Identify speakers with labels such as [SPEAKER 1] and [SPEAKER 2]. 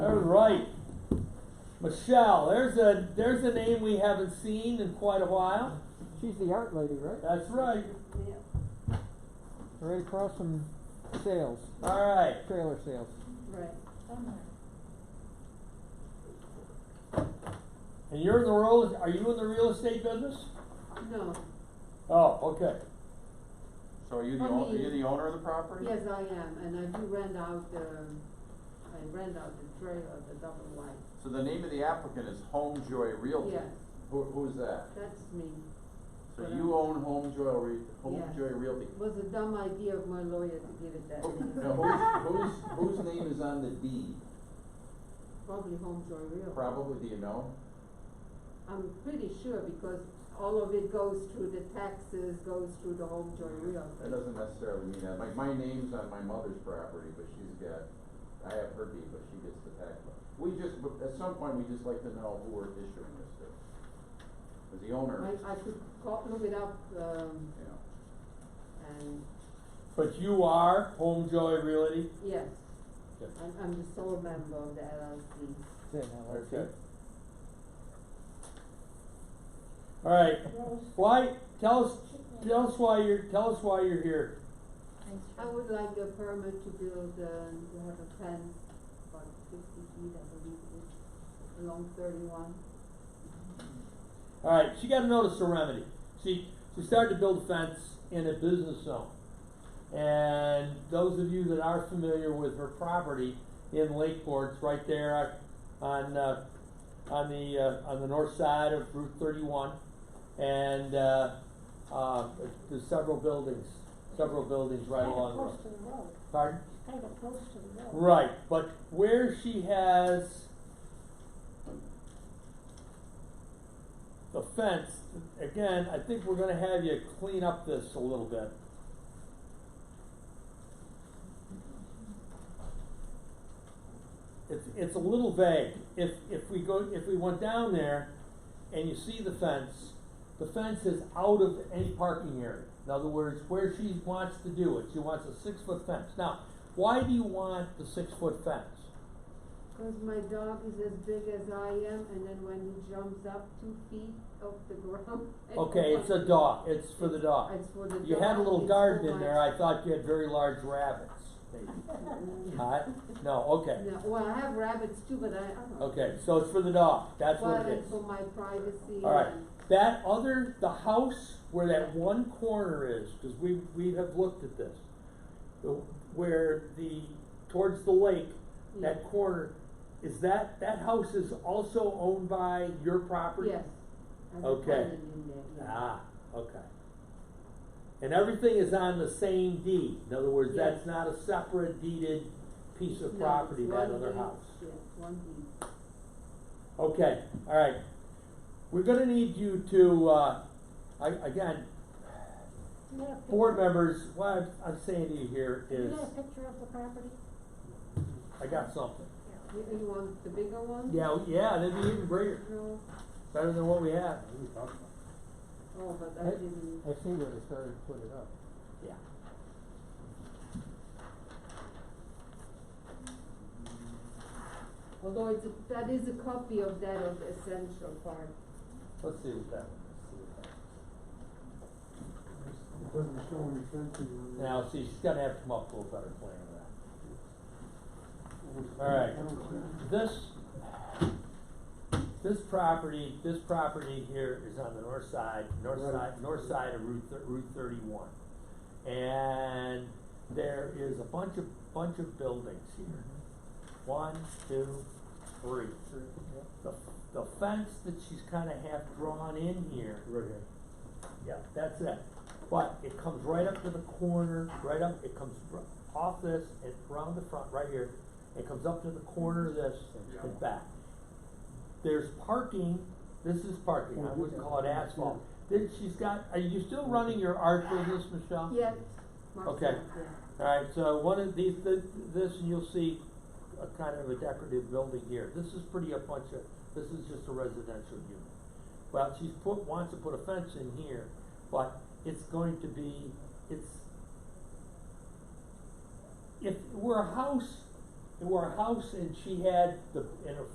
[SPEAKER 1] right. Michelle, there's a there's a name we haven't seen in quite a while.
[SPEAKER 2] She's the art lady, right?
[SPEAKER 1] That's right.
[SPEAKER 3] Yeah,
[SPEAKER 2] Right across from sales,
[SPEAKER 1] All right.
[SPEAKER 2] trailer sales.
[SPEAKER 3] right.
[SPEAKER 1] And you're in the real are you in the real estate business?
[SPEAKER 3] No,
[SPEAKER 1] Oh, okay.
[SPEAKER 4] So are you the
[SPEAKER 3] I
[SPEAKER 4] owner, are
[SPEAKER 3] mean-
[SPEAKER 4] you the owner of the property?
[SPEAKER 3] yes, I am, and I do rent out the, I rent out the trailer, the double wide.
[SPEAKER 4] So the name of the applicant is Home Joy Realty?
[SPEAKER 3] Yes,
[SPEAKER 4] Who, who's that?
[SPEAKER 3] that's me.
[SPEAKER 4] So
[SPEAKER 3] But,
[SPEAKER 4] you
[SPEAKER 3] um,
[SPEAKER 4] own Home Joy Re, Home
[SPEAKER 3] Yes.
[SPEAKER 4] Joy Realty?
[SPEAKER 3] It was a dumb idea of my lawyer to give it that
[SPEAKER 4] Who-
[SPEAKER 3] name.
[SPEAKER 4] now who's, whose, whose name is on the deed?
[SPEAKER 3] Probably Home Joy Real.
[SPEAKER 4] Probably, do you know?
[SPEAKER 3] I'm pretty sure because all of it goes through the taxes, goes through the Home Joy Real.
[SPEAKER 4] That doesn't necessarily mean that, my, my name's on my mother's property, but she's got, I have her deed, but she gets the tax bill. We just, but at some point, we just like to know who we're issuing this to. As the owner,
[SPEAKER 3] I, I could call, look it up, um,
[SPEAKER 4] you know.
[SPEAKER 3] and,
[SPEAKER 1] But you are Home Joy Realty?
[SPEAKER 3] yes.
[SPEAKER 1] Okay.
[SPEAKER 3] I'm, I'm the sole member of the LLC.
[SPEAKER 2] Is that an LLC?
[SPEAKER 1] Okay. All right. Why tell us tell us why you're tell us why you're here.
[SPEAKER 3] I would like a permit to build, uh, to have a fence about fifty feet, I believe it is, along thirty-one.
[SPEAKER 1] All right, she got a notice of remedy. She she started to build a fence in a business zone, and those of you that are familiar with her property in Lakeport, it's right there on uh, on the uh, on the north side of Route 31, and uh, uh, there's several buildings, several buildings right along. the road.
[SPEAKER 5] Close to the road,
[SPEAKER 1] Pardon?
[SPEAKER 5] kind of close to the road.
[SPEAKER 1] Right, but where she has the fence, again, I think we're gonna have you clean up this a little bit. It's, it's a little vague. If, if we go, if we went down there and you see the fence, the fence is out of any parking area. In other words, where she wants to do it, she wants a six-foot fence. Now, why do you want the six-foot fence?
[SPEAKER 3] Cause my dog is as big as I am, and then when he jumps up two feet off the ground. I don't
[SPEAKER 1] Okay, it's a
[SPEAKER 3] want-
[SPEAKER 1] dog, it's for the dog.
[SPEAKER 3] It's for the dog.
[SPEAKER 1] You had a little
[SPEAKER 3] it's
[SPEAKER 1] garden
[SPEAKER 3] for
[SPEAKER 1] in
[SPEAKER 3] my-
[SPEAKER 1] there, I thought you had very large rabbits, maybe. Huh? No, okay,
[SPEAKER 3] No, well, I have rabbits too, but I, I don't know.
[SPEAKER 1] okay, so it's for the dog, that's
[SPEAKER 3] Well,
[SPEAKER 1] what it
[SPEAKER 3] it's
[SPEAKER 1] is.
[SPEAKER 3] for my privacy
[SPEAKER 1] All right.
[SPEAKER 3] and,
[SPEAKER 1] That other, the house where that one corner is, cause we, we have looked at this. the- Where the, towards the lake,
[SPEAKER 3] yeah,
[SPEAKER 1] that corner, is that, that house is also owned by your property?
[SPEAKER 3] yes. I have a
[SPEAKER 1] Okay.
[SPEAKER 3] tenant in there, yeah.
[SPEAKER 1] Ah, okay. And everything is on the same deed, in other words,
[SPEAKER 3] Yes.
[SPEAKER 1] that's not a separate deeded piece of
[SPEAKER 3] No,
[SPEAKER 1] property,
[SPEAKER 3] it's
[SPEAKER 1] that
[SPEAKER 3] one
[SPEAKER 1] other
[SPEAKER 3] deed,
[SPEAKER 1] house.
[SPEAKER 3] Yes, one deed.
[SPEAKER 1] Okay, all right. We're gonna need you to, uh, I, again,
[SPEAKER 5] You got a picture-
[SPEAKER 1] board members, what I'm, I'm saying to you here
[SPEAKER 5] You
[SPEAKER 1] is,
[SPEAKER 5] got a picture of the property?
[SPEAKER 1] I got something.
[SPEAKER 3] You, you want the bigger one?
[SPEAKER 1] Yeah, yeah, that'd be even greater,
[SPEAKER 3] No,
[SPEAKER 1] better than what we have.
[SPEAKER 3] oh, but I
[SPEAKER 2] Hey.
[SPEAKER 3] didn't,
[SPEAKER 2] I see where they started to put it up.
[SPEAKER 1] Yeah.
[SPEAKER 3] although it's, a- that is a copy of that of the essential part.
[SPEAKER 1] Let's see what that one
[SPEAKER 6] It doesn't show any fencing on
[SPEAKER 1] is.
[SPEAKER 6] there.
[SPEAKER 1] Now, see, she's gonna have to come up with a better plan than that. all right.
[SPEAKER 6] I don't see it.
[SPEAKER 1] This, this property, this property here is on the north side, north
[SPEAKER 6] Right.
[SPEAKER 1] side, north side of Route, thir- Route thirty-one. And there is a bunch of, bunch of buildings here. One, two, three. The, the fence that she's kinda half drawn in here
[SPEAKER 6] Right here.
[SPEAKER 1] yeah, that's it. But it comes right up to the corner, right up, it comes r- off this and around the front, right here. It comes up to the corner of this and back. There's parking, this is parking, I wouldn't call it asphalt. Then she's got, are you still running your art business, Michelle?
[SPEAKER 3] Yes, Mark's
[SPEAKER 1] Uh-huh. Okay.
[SPEAKER 3] not there.
[SPEAKER 1] Alright, so one of these, th- this, and you'll see a kind of a decorative building here. This is pretty a bunch of, this is just a residential unit. Well, she's put, wants to put a fence in here, but it's going to be, it's, if it were a house, were a house and she had the, and her